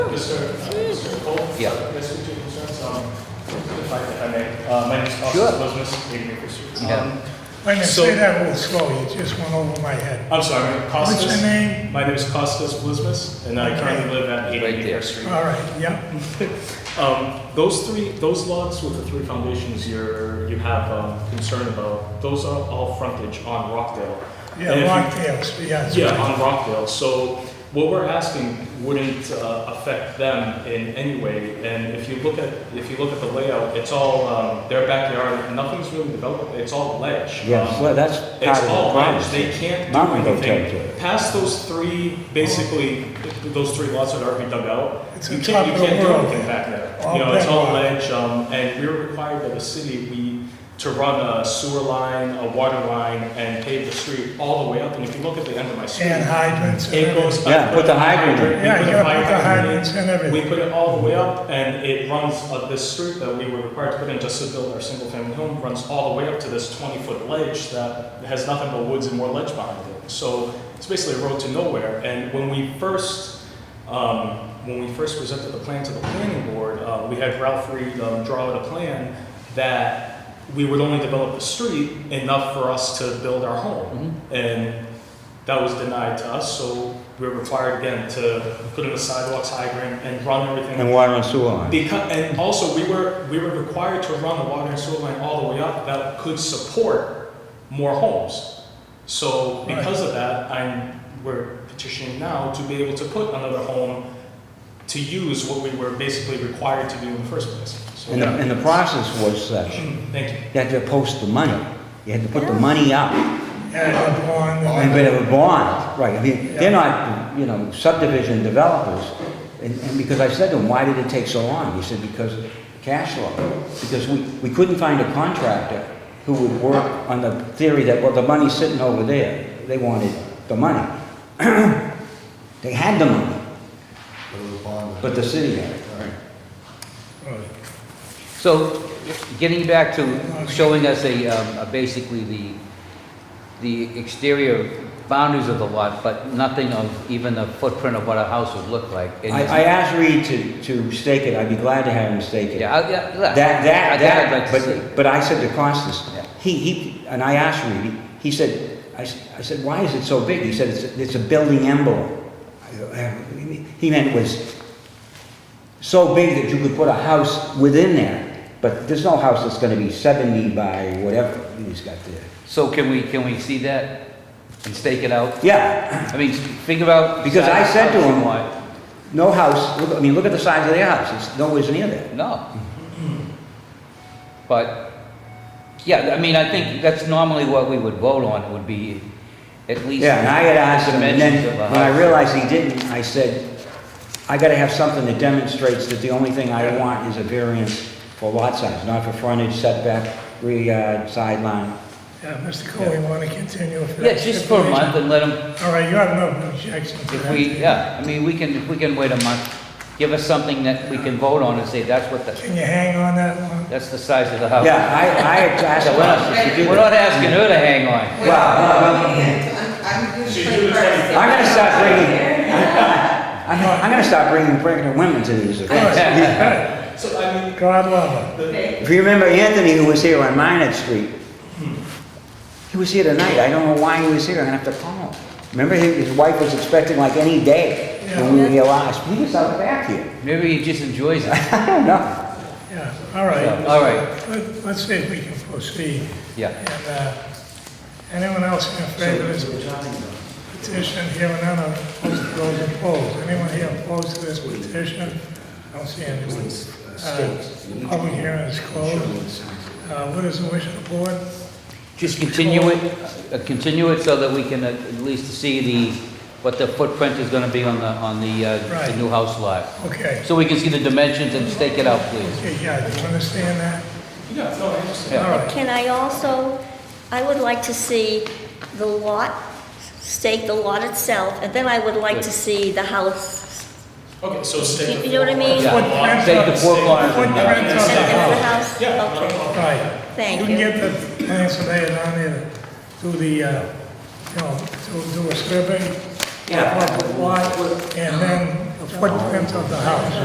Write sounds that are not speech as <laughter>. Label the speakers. Speaker 1: Mr. uh, Mr. Cole?
Speaker 2: Yeah.
Speaker 1: Yes, we do, concerns, um,
Speaker 3: If I if I may, uh, my name is Austin
Speaker 2: Sure.
Speaker 3: Posnes, Aid Makers.
Speaker 2: Yeah.
Speaker 3: Um,
Speaker 4: Wait a minute,
Speaker 3: So-
Speaker 4: say that a little slow, it just went over my head.
Speaker 3: I'm sorry,
Speaker 4: What's
Speaker 3: Costas.
Speaker 4: your name?
Speaker 3: My name is Costas Blismus, and I currently live at 80
Speaker 2: Right there.
Speaker 3: Acre Street.
Speaker 4: All right, yeah,
Speaker 3: Um, Those three, those lots with the three foundations you're, you have um, concern about, those are all frontage on Rockdale. And if
Speaker 4: yeah,
Speaker 3: you-
Speaker 4: Longtails, yeah. that's
Speaker 3: Yeah,
Speaker 4: right.
Speaker 3: on Rockdale. So what we're asking wouldn't uh, affect them in any way. And if you look at, if you look at the layout, it's all, um, their backyard, nothing's really developed, it's all ledge.
Speaker 5: Yes,
Speaker 3: Um,
Speaker 5: well, that's part
Speaker 3: It's
Speaker 5: of the
Speaker 3: all ledge,
Speaker 5: problem.
Speaker 3: they can't do
Speaker 5: Mountain goat territory.
Speaker 3: anything. Past those three, basically, those three lots that are already dug out,
Speaker 4: It's
Speaker 3: you
Speaker 4: on
Speaker 3: can't, you
Speaker 4: top of the
Speaker 3: can't do
Speaker 4: world.
Speaker 3: anything back there.
Speaker 4: All
Speaker 3: You know, it's all
Speaker 4: bedrock.
Speaker 3: ledge, um, and we're required by the city, we, to run a sewer line, a water line, and pave the street all the way up. And if you look at the end of my street.
Speaker 4: And hydrants. and
Speaker 3: It goes.
Speaker 4: everything.
Speaker 5: Yeah, put the hydrant in.
Speaker 3: We
Speaker 4: Yeah,
Speaker 3: put
Speaker 4: you
Speaker 3: the
Speaker 4: gotta put the
Speaker 3: hydrant in.
Speaker 4: hydrants and
Speaker 3: We
Speaker 4: everything.
Speaker 3: put it all the way up and it runs, uh, this street that we were required to put in just to build our single family home runs all the way up to this twenty foot ledge that has nothing but woods and more ledge behind it. So it's basically a road to nowhere. And when we first, um, when we first presented the plan to the planning board, uh, we had Ralph Reed, um, draw out a plan that we would only develop the street enough for us to build our home. And that was denied to us, so we were required again to put in a sidewalks hydrant and run
Speaker 5: And
Speaker 3: everything.
Speaker 5: water and sewer line.
Speaker 3: Because, and also, we were, we were required to run the water and sewer line all the way up that could support more homes. So because of that, I'm, we're petitioning now to be able to put another home to use what we were basically required to do in the first place. So,
Speaker 5: And the, and the process was such
Speaker 3: <clears throat> Thank you.
Speaker 5: that to post the money. You had to put the money up
Speaker 4: And the barn.
Speaker 5: and bit of a bond, right? I mean, they're not, you know, subdivision developers. And, and because I said to him, why did it take so long? He said, because cash flow. Because we, we couldn't find a contractor who would work on the theory that, well, the money's sitting over there. They wanted the money. <clears throat> They had the money, but the city had it.
Speaker 2: So, getting back to showing us a, um, a basically the, the exterior boundaries of the lot, but nothing of even a footprint of what a house would look like. And
Speaker 5: I, I asked Reed to, to stake it, I'd be glad to have him stake it.
Speaker 2: Yeah, I- yeah, look,
Speaker 5: That, that,
Speaker 2: I'd
Speaker 5: that,
Speaker 2: like to see.
Speaker 5: but, but I said to Costas,
Speaker 2: Yeah.
Speaker 5: he, he, and I asked Reed, he said, I, s- I said, why is it so big? He said, it's, a- it's a building envelope. I go, "Eh, what do you mean?" He meant it was so big that you could put a house within there, but there's no house that's gonna be seventy by whatever he's got there.
Speaker 2: So can we, can we see that and stake it out?
Speaker 5: Yeah, <clears throat>
Speaker 2: I mean, figure out.
Speaker 5: Because I said to
Speaker 2: size,
Speaker 5: him-
Speaker 2: you want.
Speaker 5: no house, look, I mean, look at the size of their house, it's nowhere near that.
Speaker 2: No. But, yeah, I mean, I think that's normally what we would vote on, would be at least.
Speaker 5: Yeah, and I had asked him, and then
Speaker 2: dimensions of a
Speaker 5: when I
Speaker 2: house.
Speaker 5: realized he didn't, I said, I gotta have something that demonstrates that the only thing I want is a variance for lot size, not for frontage, setback, rear yard, sideline.
Speaker 4: Yeah, Mr. Cole, you wanna continue? if
Speaker 2: Yeah,
Speaker 4: that's
Speaker 2: just for a month
Speaker 4: stipulation?
Speaker 2: and let them,
Speaker 4: All right, you have no objection to
Speaker 2: if
Speaker 4: that?
Speaker 2: we, yeah, I mean, we can, if we can wait a month, give us something that we can vote on and say, that's what the,
Speaker 4: Can you hang on that long?
Speaker 2: that's the size of the house.
Speaker 5: Yeah, I, I
Speaker 2: <laughs>
Speaker 5: had asked
Speaker 2: Oh. So we're
Speaker 5: Costas to
Speaker 2: not,
Speaker 5: do
Speaker 2: we're not
Speaker 5: that.
Speaker 2: asking her to hang on.
Speaker 5: Wow, wow, wow.
Speaker 6: I'm, I'm
Speaker 3: She's
Speaker 6: just
Speaker 3: doing
Speaker 6: like
Speaker 3: something.
Speaker 6: first.
Speaker 5: I'm gonna stop bringing, I'm, I'm gonna stop bringing pregnant women to
Speaker 2: <laughs>
Speaker 5: these events.
Speaker 3: So I mean,
Speaker 4: God love
Speaker 3: the,
Speaker 5: If you remember Anthony, who was here on Minot Street, he was here tonight, I don't know why he was here, I'm gonna have to call him. Remember, his his wife was expecting like any day when we were here last, he was out back here.
Speaker 2: Maybe he just enjoys it. <laughs>
Speaker 5: I don't know.
Speaker 4: it, yeah, all right.
Speaker 2: So, All right,
Speaker 4: Let- Let's see if we can proceed.
Speaker 2: yeah.
Speaker 4: And uh, anyone else in favor of this petition? Here and none opposed, those opposed. Anyone here opposed to this petition? I don't see anyone. Uh, Public hearing is closed. Uh, What is the wish of the board?
Speaker 2: Just continue it, uh, continue it so that we can at at least see the, what the footprint is gonna be on the, on the, uh, the
Speaker 4: Right.
Speaker 2: new house lot.
Speaker 4: Okay,
Speaker 2: So we can see the dimensions and stake it out, please.
Speaker 4: Okay, yeah, do you understand that?
Speaker 3: yeah, no, I understand.
Speaker 2: Yeah.
Speaker 4: All right,
Speaker 7: Can I also, I would like to see the lot, stake the lot itself, and then I would like to see the house.
Speaker 3: Okay, so stay.
Speaker 7: You know what I mean?
Speaker 2: Yeah.
Speaker 4: Footprint
Speaker 2: Take the
Speaker 4: of-
Speaker 2: four corners and
Speaker 4: footprint
Speaker 2: uh,
Speaker 4: of the
Speaker 7: And and the
Speaker 4: house.
Speaker 7: house?
Speaker 3: Yeah, not a
Speaker 7: Okay,
Speaker 3: problem.
Speaker 4: Right.
Speaker 7: thank
Speaker 4: You
Speaker 7: you.
Speaker 4: can get the plan surveyor down there to do the, uh, you know, to do a survey.
Speaker 5: Yeah.
Speaker 4: Of the lot, and then the footprint of the house.